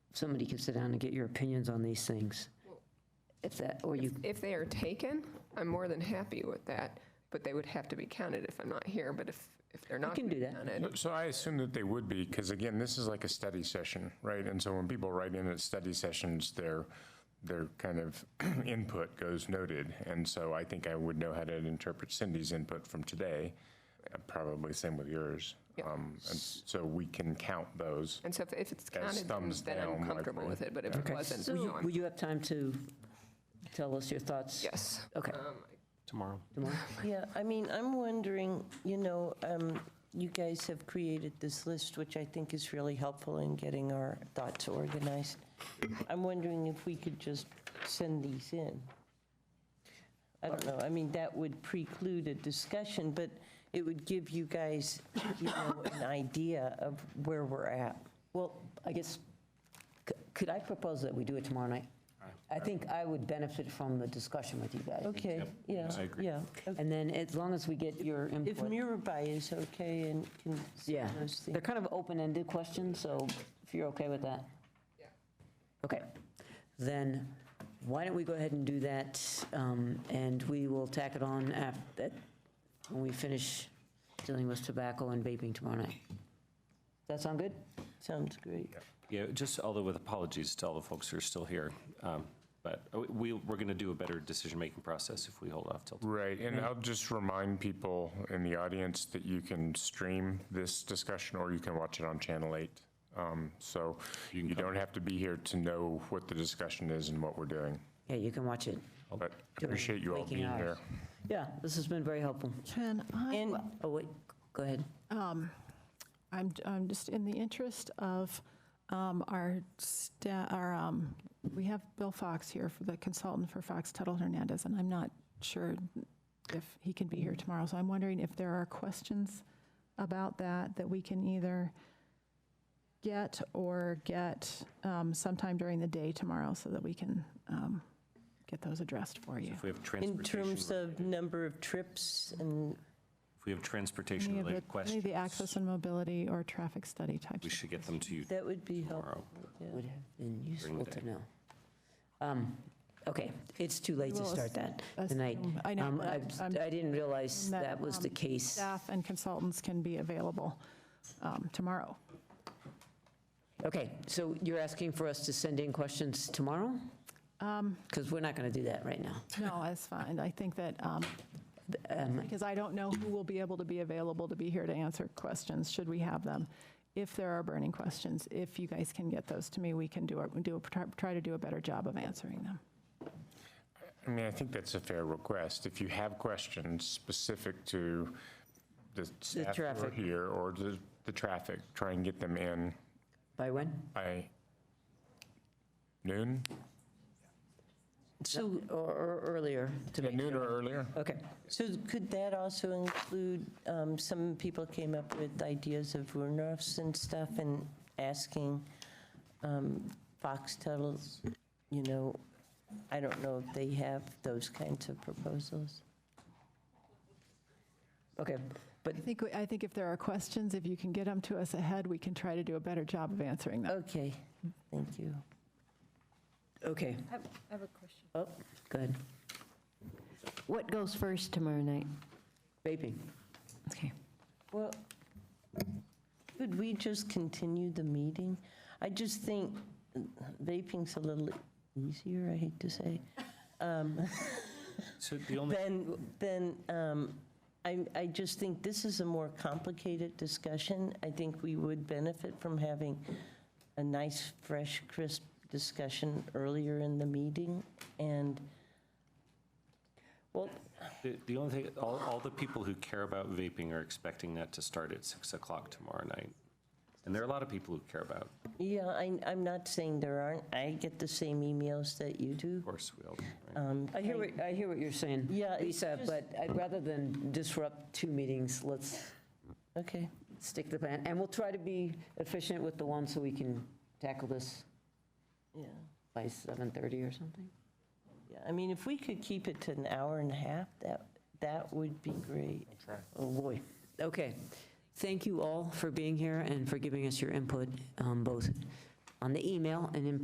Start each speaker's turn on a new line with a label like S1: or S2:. S1: somebody can sit down and get your opinions on these things. If that, or you,
S2: If they are taken, I'm more than happy with that, but they would have to be counted if I'm not here, but if, if they're not
S1: can do that.
S2: counted.
S3: So I assume that they would be, because again, this is like a study session, right? And so when people write in at study sessions, their, their kind of input goes noted. And so I think I would know how to interpret Cindy's input from today, uh, probably same with yours. Um, And so we can count those.
S2: And so if- if it's
S3: As
S2: counted, then
S3: thumbs
S2: then I'm
S3: down,
S2: comfortable with
S3: likely.
S2: it, but if it wasn't,
S1: will you,
S2: no, I'm-
S1: will you have time to tell us your thoughts?
S2: yes. Um,
S1: Okay.
S4: tomorrow.
S5: Yeah, I mean, I'm wondering, you know, um, you guys have created this list, which I think is really helpful in getting our thoughts organized. I'm wondering if we could just send these in. I don't know, I mean, that would preclude a discussion, but it would give you guys, you know, an idea of where we're at.
S1: Well, I guess, c- could I propose that we do it tomorrow night? I think I would benefit from the discussion with you guys.
S5: Okay, yeah, yeah. okay.
S1: And then as long as we get your
S5: If
S1: input.
S5: Mirabai is okay and can
S1: Yeah,
S5: send those things.
S1: they're kind of open-ended questions, so if you're okay with that? Okay, then why don't we go ahead and do that, um, and we will tack it on after, when we finish dealing with tobacco and vaping tomorrow night. Does that sound good?
S5: Sounds great.
S4: Yeah, just although with apologies to all the folks who are still here, um, but we, we're going to do a better decision-making process if we hold off till.
S3: Right, and I'll just remind people in the audience that you can stream this discussion or you can watch it on Channel 8. Um, So you don't have to be here to know what the discussion is and what we're doing.
S1: Yeah, you can watch it.
S3: But appreciate you all
S1: Waking
S3: being here.
S1: hours. Yeah, this has been very helpful.
S6: Can I, um,
S1: And, oh, wait, go ahead.
S6: I'm, I'm just in the interest of um, our, sta- our, um, we have Bill Fox here for the consultant for Fox Tuttle Hernandez, and I'm not sure if he can be here tomorrow. So I'm wondering if there are questions about that, that we can either get or get um, sometime during the day tomorrow so that we can um, get those addressed for you.
S4: If we have
S5: In
S4: transportation,
S5: terms
S4: if
S5: of number of trips and,
S4: we have
S6: Any of the-
S4: transportation-related
S6: Any of the
S4: questions,
S6: access and mobility or traffic study types
S4: we
S6: of
S4: should get them to you
S5: that would be helpful.
S4: tomorrow.
S1: Would have been useful
S4: the
S1: to
S4: day.
S1: know. Um, Okay, it's too late to
S6: will
S1: start that
S6: assume-
S1: tonight.
S6: I know,
S1: Um,
S6: but
S1: I
S6: I'm-
S1: I didn't realize
S6: that,
S1: that was the
S6: um,
S1: case.
S6: staff and consultants can be available um, tomorrow.
S1: Okay, so you're asking for us to send in questions tomorrow? Because we're not going to do that right now.
S6: No, that's fine. I think that, um, because I don't know who will be able to be available to be here to answer questions, should we have them. If there are burning questions, if you guys can get those to me, we can do, our- do, a- try- try to do a better job of answering them.
S3: I mean, I think that's a fair request. If you have questions specific to the staff who are
S1: traffic.
S3: here or the, the traffic, try and get them in
S1: By when?
S3: by noon?
S1: So, or- or earlier to
S3: Yeah,
S1: make
S3: Noon or
S1: sure.
S3: earlier?
S1: Okay,
S5: So could that also include, um, some people came up with ideas of runoffs and stuff and asking um, Foxtel, you know, I don't know if they have those kinds of proposals.
S1: okay. But,
S6: I think, we- I think if there are questions, if you can get them to us ahead, we can try to do a better job of answering them.
S5: Okay, thank you.
S1: okay,
S7: I have I have a question.
S1: oh, go ahead.
S7: What goes first tomorrow night?
S1: Vaping.
S7: Okay.
S5: Well, could we just continue the meeting? I just think vaping's a little easier, I hate to say, Um,
S4: So the only,
S5: Then, then um, I, I just think this is a more complicated discussion. I think we would benefit from having a nice, fresh, crisp discussion earlier in the meeting. And, well,
S4: the the only thing, all, all the people who care about vaping are expecting that to start at 6 o'clock tomorrow night. And there are a lot of people who care about, of
S5: yeah, I, I'm not saying there aren't, I get the same emails that you do.
S4: course, we all, right?
S5: Um,
S1: I hear what, I hear what you're saying.
S5: Yeah, it's
S1: Lisa,
S5: just-
S1: but I'd rather than disrupt two meetings, let's
S5: Okay,
S1: stick to the plan. And we'll try to be efficient with the one so we can tackle this
S5: yeah.
S1: by 7:30 or something.
S5: Yeah, I mean, if we could keep it to an hour and a half, that, that would be great.
S1: Oh, boy. Okay. Thank you all for being here and for giving us your input, um, both on the email and in